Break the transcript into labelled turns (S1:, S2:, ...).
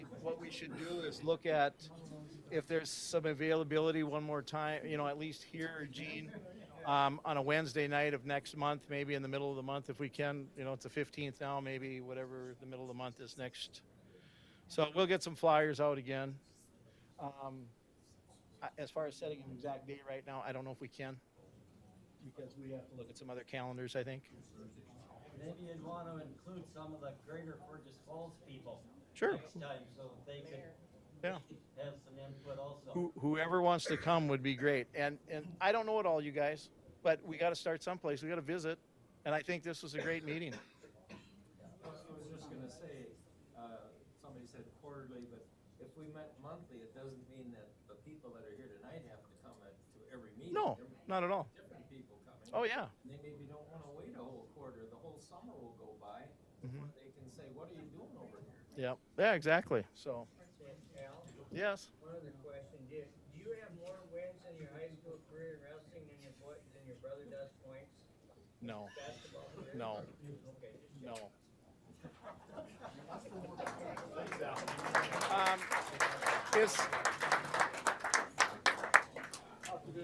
S1: we should do is look at if there's some availability one more time, you know, at least here, Gene, um, on a Wednesday night of next month, maybe in the middle of the month if we can. You know, it's the 15th now, maybe whatever the middle of the month is next. So we'll get some flyers out again. Um, I- as far as setting an exact date right now, I don't know if we can because we have to look at some other calendars, I think.
S2: Maybe you'd want to include some of the greater Fergus Falls people.
S1: Sure.
S2: Next time, so they could
S1: Yeah.
S2: have some input also.
S1: Who, whoever wants to come would be great. And and I don't know it all, you guys, but we got to start someplace. We got to visit, and I think this was a great meeting.
S3: Well, I was just gonna say, uh, somebody said quarterly, but if we met monthly, it doesn't mean that the people that are here tonight have to come at, to every meeting.
S1: No,
S3: There may be
S1: not at all.
S3: Different people coming.
S1: Oh yeah,
S3: And they maybe don't wanna wait a whole quarter, the whole summer will go by
S1: Mm-hmm.
S3: before they can say, what are you doing over here?
S1: yeah, yeah, exactly. So
S4: Al,
S1: yes,
S4: one other question, do, do you have more wins in your high school career in wrestling than your boy, than your brother does points
S1: no,
S4: basketball career?
S1: no,
S4: Okay, just
S1: no. Um, it's